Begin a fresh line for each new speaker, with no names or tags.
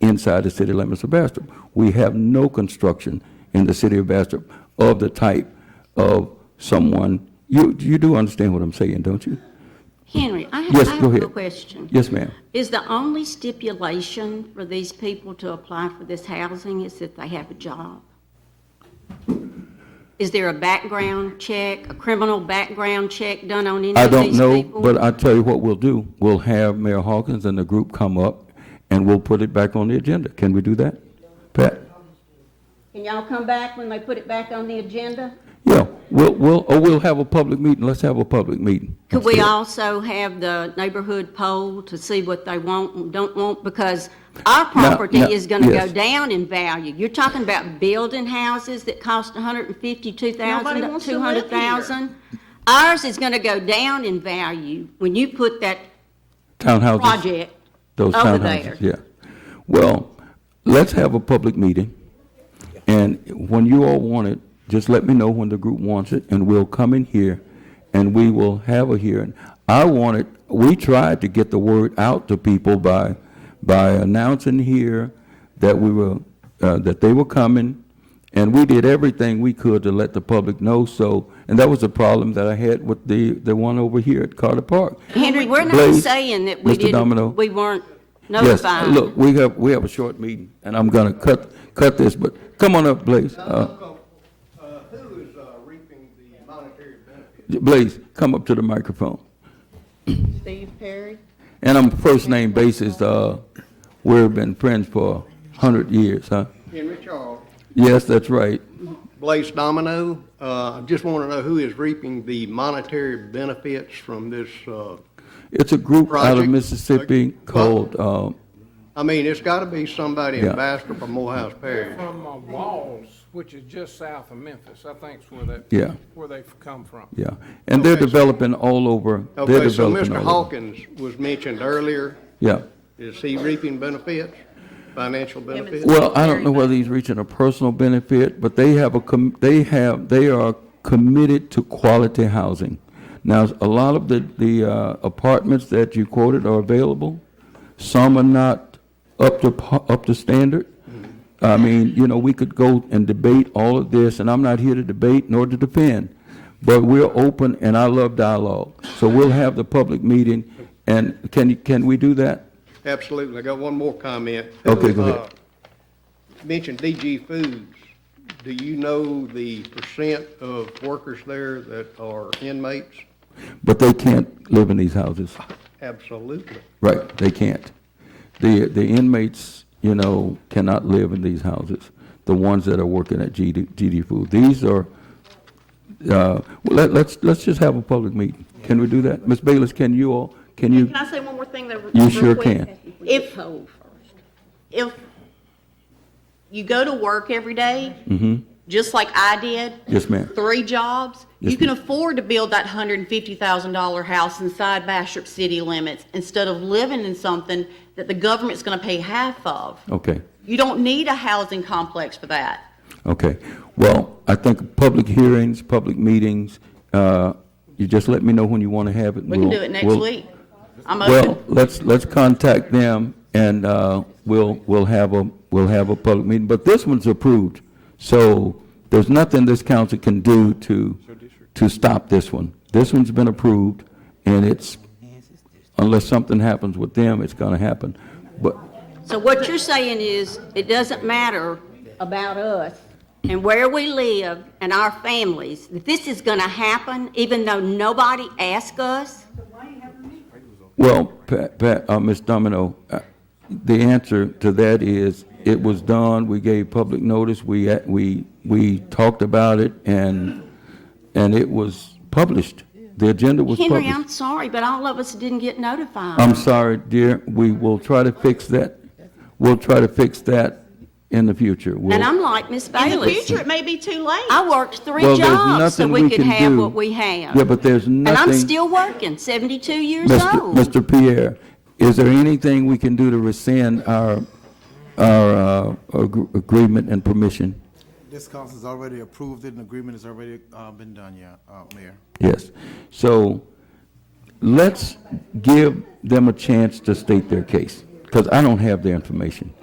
inside the city limits of Bastrop. We have no construction in the city of Bastrop of the type of someone, you, you do understand what I'm saying, don't you?
Henry, I have,
Yes,
I
go
have a
ahead.
question.
Yes, ma'am.
Is the only stipulation for these people to apply for this housing is that they have a job? Is there a background check, a criminal background check done on any
I
of
don't
these people?
know, but I tell you what we'll do. We'll have Mayor Hawkins and the group come up, and we'll put it back on the agenda. Can we do that? Pat?
Can y'all come back when they put it back on the agenda?
Yeah, we'll, we'll, or we'll have a public meeting. Let's have a public meeting.
Could we
Let's do it.
also have the neighborhood poll to see what they want and don't want? Because our property
no,
is going to go
yes.
down in value. You're talking about building houses that cost
Nobody
$152,000,
wants to live here.
$200,000. Ours is going to go down in value when you put that
Townhouses.
project
Those
over
townhouses,
there.
yeah. Well, let's have a public meeting, and when you all want it, just let me know when the group wants it, and we'll come in here, and we will have a hearing. I wanted, we tried to get the word out to people by, by announcing here that we were, uh, that they were coming, and we did everything we could to let the public know, so, and that was a problem that I had with the, the one over here at Carter Park.
Henry, we're not
Blaze,
saying that we
Mr. Domino.
didn't, we weren't
Yes,
notified.
look, we have, we have a short meeting, and I'm gonna cut, cut this, but come on up, Blaze. Uh,
Uh, Who is uh, reaping the monetary benefit?
Blaze, come up to the microphone.
Steve Perry.
And on a first-name basis, uh, we've been friends for a hundred years, huh?
Henry Charles.
Yes, that's right.
Blaze Domino, uh, just want to know who is reaping the monetary benefits from this, uh,
It's a group out of
Project-
Mississippi called, um,
I mean, it's got to be somebody in
Yeah.
Bastrop or Morehouse Parish.
From uh, Walls, which is just south of Memphis, I think's where that.
Yeah.
Where they've come from.
yeah, and they're
Okay, so-
developing all over, they're
Okay, so
developing
Mr.
all over.
Hawkins was mentioned earlier.
Yeah.
Is he reaping benefits, financial
and
benefits?
Well, I don't know whether he's reaching a personal benefit, but they have a, com- they have, they are committed to quality housing. Now, a lot of the, the uh, apartments that you quoted are available. Some are not up to, par- up to standard. I mean, you know, we could go and debate all of this, and I'm not here to debate nor to defend, but we're open, and I love dialogue. So we'll have the public meeting, and can, can we do that?
Absolutely. I got one more comment.
Okay, go ahead.
Uh, Mentioned DG Foods. Do you know the percent of workers there that are inmates?
But they can't live in these houses.
Absolutely.
Right, they can't. The, the inmates, you know, cannot live in these houses, the ones that are working at GD, GD Food. These are, uh, well, let, let's, let's just have a public meeting. Can we do that? Ms. Bayless, can you all, can you,
Can I say one more thing though?
You
real
sure
quick?
can.
If, if you go to work every day, just like I did.
Mm-hmm. Yes, ma'am.
Three jobs,
Yes,
you can
ma'am.
afford to build that hundred and fifty thousand dollar house inside Bastrop city limits instead of living in something that the government's gonna pay half of.
okay,
You don't need a housing complex for that.
okay. Well, I think public hearings, public meetings, uh, you just let me know when you want to have it.
We can do it next week. I'm
Well,
open.
let's, let's contact them, and uh, we'll, we'll have a, we'll have a public meeting, but this one's approved, so there's nothing this council can do to, to stop this one. This one's been approved, and it's, unless something happens with them, it's gonna happen, but,
So what you're saying is, it doesn't matter about us and where we live and our families, that this is going to happen even though nobody asked us?
well, Pat, Pat, uh, Ms. Domino, uh, the answer to that is, it was done, we gave public notice, we, uh, we, we talked about it, and, and it was published. The agenda was published.
Henry, I'm sorry, but all of us didn't get notified.
I'm sorry, dear, we will try to fix that. We'll try to fix that in the future. We'll-
And I'm like Miss
In the
Bailey.
future, it may be too late.
I worked three
Well, there's
jobs so
nothing
we could
can
have
do.
what we have.
Yeah, but there's
And I'm
nothing,
still working, 72 years
Mr.
old.
Mr. Pierre, is there anything we can do to rescind our, our uh, ag- agreement and permission?
This council's already approved it, and agreement has already uh, been done, yeah, uh, Mayor.
Yes. So let's give them a chance to state their case, because I don't have their information.